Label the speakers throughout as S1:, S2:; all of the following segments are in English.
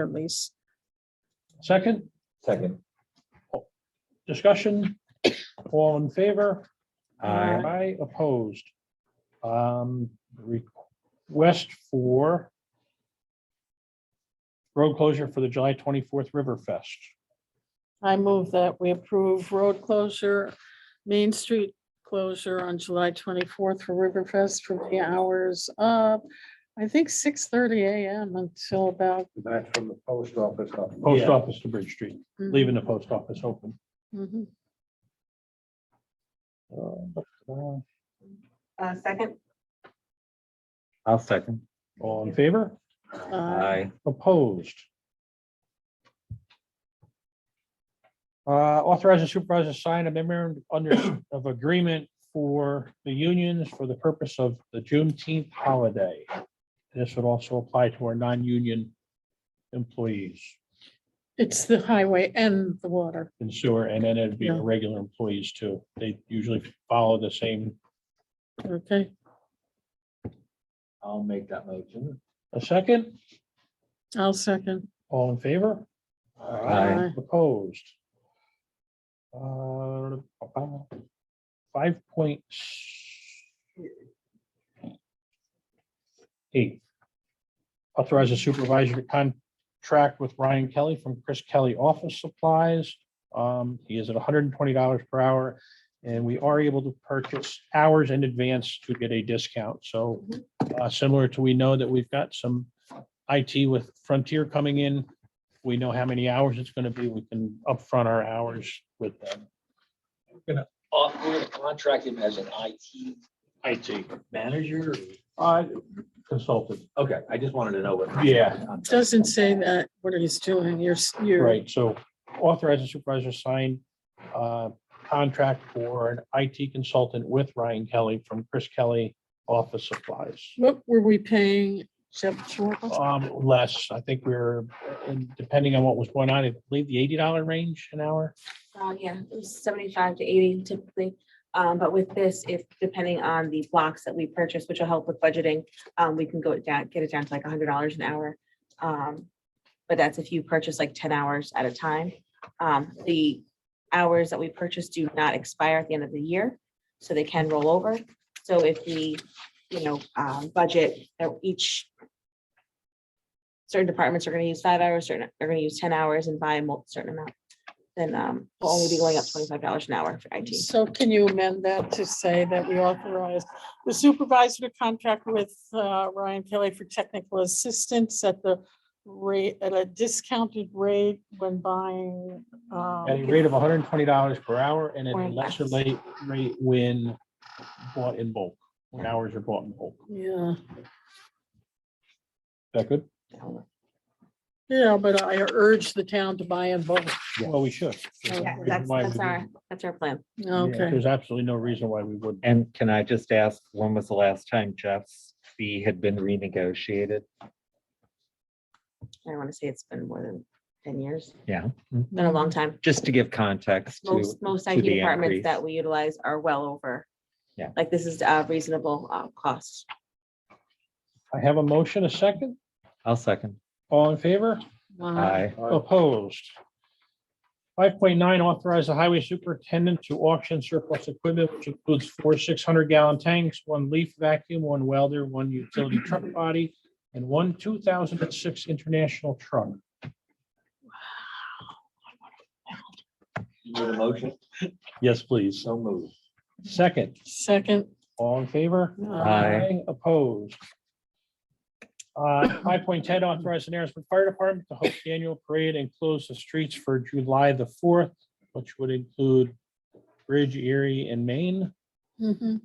S1: term lease.
S2: Second, Oh,
S3: Second.
S2: discussion, all in favor?
S1: Aye.
S2: Aye, opposed. Um, request for road closure for the July twenty-fourth River Fest.
S1: I move that we approve road closure, Main Street closure on July twenty-fourth for Riverfest from the hours of, I think, six thirty AM until about.
S3: That's from the post office. up.
S2: Post office to Bridge Street,
S1: mm,
S2: leaving the post office open.
S1: Mhm.
S2: All
S4: Uh, second,
S3: I'll second.
S2: in favor?
S1: Uh,
S2: Opposed? Uh, Authorize the supervisor to sign a memorandum under, of agreement for the unions for the purpose of the Juneteenth holiday. This would also apply to our non-union employees
S1: It's the highway and the water.
S2: in sewer, and then it'd be
S1: Yeah.
S2: the regular employees too. They usually follow the same.
S1: Okay,
S3: I'll make that motion.
S2: A second,
S1: I'll second.
S2: all in favor?
S3: Aye.
S2: Opposed? Uh, Five point eight. Authorize the supervisor to contract with Ryan Kelly from Chris Kelly Office Supplies. Um, He is at hundred and twenty dollars per hour, and we are able to purchase hours in advance to get a discount. So uh, similar to, we know that we've got some IT with Frontier coming in we know how many hours it's gonna be, we can upfront our hours with them.
S5: Uh, we're gonna contract him as an IT
S2: IT.
S5: manager.
S2: Uh, consultant.
S5: Okay, I just wanted to know what.
S2: Yeah.
S1: Doesn't say that what he's doing. You're, s- you're,
S2: Right, so authorize the supervisor to sign, uh, contract for an IT consultant with Ryan Kelly from Chris Kelly Office Supplies.
S1: what were we paying Jeff Schwartz?
S2: Um, less, I think we're, and depending on what was going on, I believe the eighty dollar range an hour.
S4: uh, yeah, it was seventy-five to eighty typically. Um, but with this, if depending on the blocks that we purchase, which will help with budgeting, um, we can go it down, get it down to like hundred dollars an hour. Um, but that's if you purchase like ten hours at a time. Um, the hours that we purchase do not expire at the end of the year, so they can roll over. So if we, you know, um, budget that each certain departments are gonna use five hours, certain, they're gonna use ten hours and buy a mul- certain amount, then, um, we'll only be going up twenty-five dollars an hour for IT.
S1: So can you amend that to say that we authorize the supervisor to contract with uh, Ryan Kelly for technical assistance at the rate, at a discounted rate when buying? um,
S2: At a rate of hundred and twenty dollars per hour and at a
S4: Or
S2: lesser
S4: less.
S2: late rate when bought in bulk, when hours are bought in bulk.
S1: Yeah,
S2: Is that good?
S1: yeah, but I urge the town to buy in both.
S2: Well, we should.
S1: Yeah,
S4: Yeah,
S2: There's no
S4: that's,
S2: reason why
S4: that's
S2: we
S4: our,
S2: wouldn't.
S4: that's our plan.
S2: Yeah,
S1: Okay,
S2: There's absolutely no reason why we wouldn't.
S3: And can I just ask, when was the last time Jeff's fee had been renegotiated?
S4: I want to say it's been more than ten years, been a
S1: no,
S4: long time.
S3: Just to give context to,
S4: Most, most
S3: to
S4: IT
S3: the
S4: departments
S3: increase.
S4: that we utilize are well over.
S3: Yeah.
S4: Like this is a reasonable, uh, cost.
S2: I have a motion, a second.
S3: I'll second.
S2: All in favor?
S3: Aye.
S2: Opposed? Five point nine, authorize the highway superintendent to auction surplus equipment, which includes four six hundred gallon tanks, one leaf vacuum, one welder, one utility truck body, and one two thousand and six international truck.
S5: You need a motion?
S2: Yes, please.
S5: So moved.
S2: Second,
S1: second.
S2: all in favor?
S3: Aye.
S2: Opposed. Uh, five point ten, authorize the Narrowsburg Fire Department to host the annual parade and close the streets for July the fourth, which would include Bridge Erie and Maine.
S1: Mhm.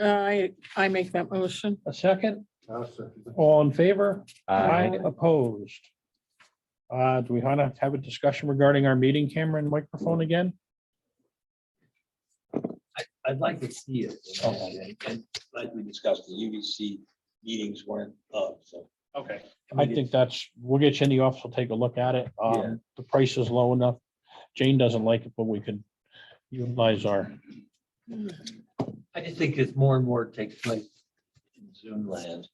S1: Uh, I, I make that motion.
S2: A second, all in favor?
S3: Aye.
S2: Opposed. Uh, do we wanna have a discussion regarding our meeting camera and microphone again?
S5: I'd like to see it. you know, And and like we discussed, the UDC meetings weren't up, so.
S2: Okay. I think that's, we'll get you in the office, we'll take a look at it.
S5: Yeah.
S2: Um, the price is low enough. Jane doesn't like it, but we could utilize our
S5: I just think as more and more takes place in Zoom land,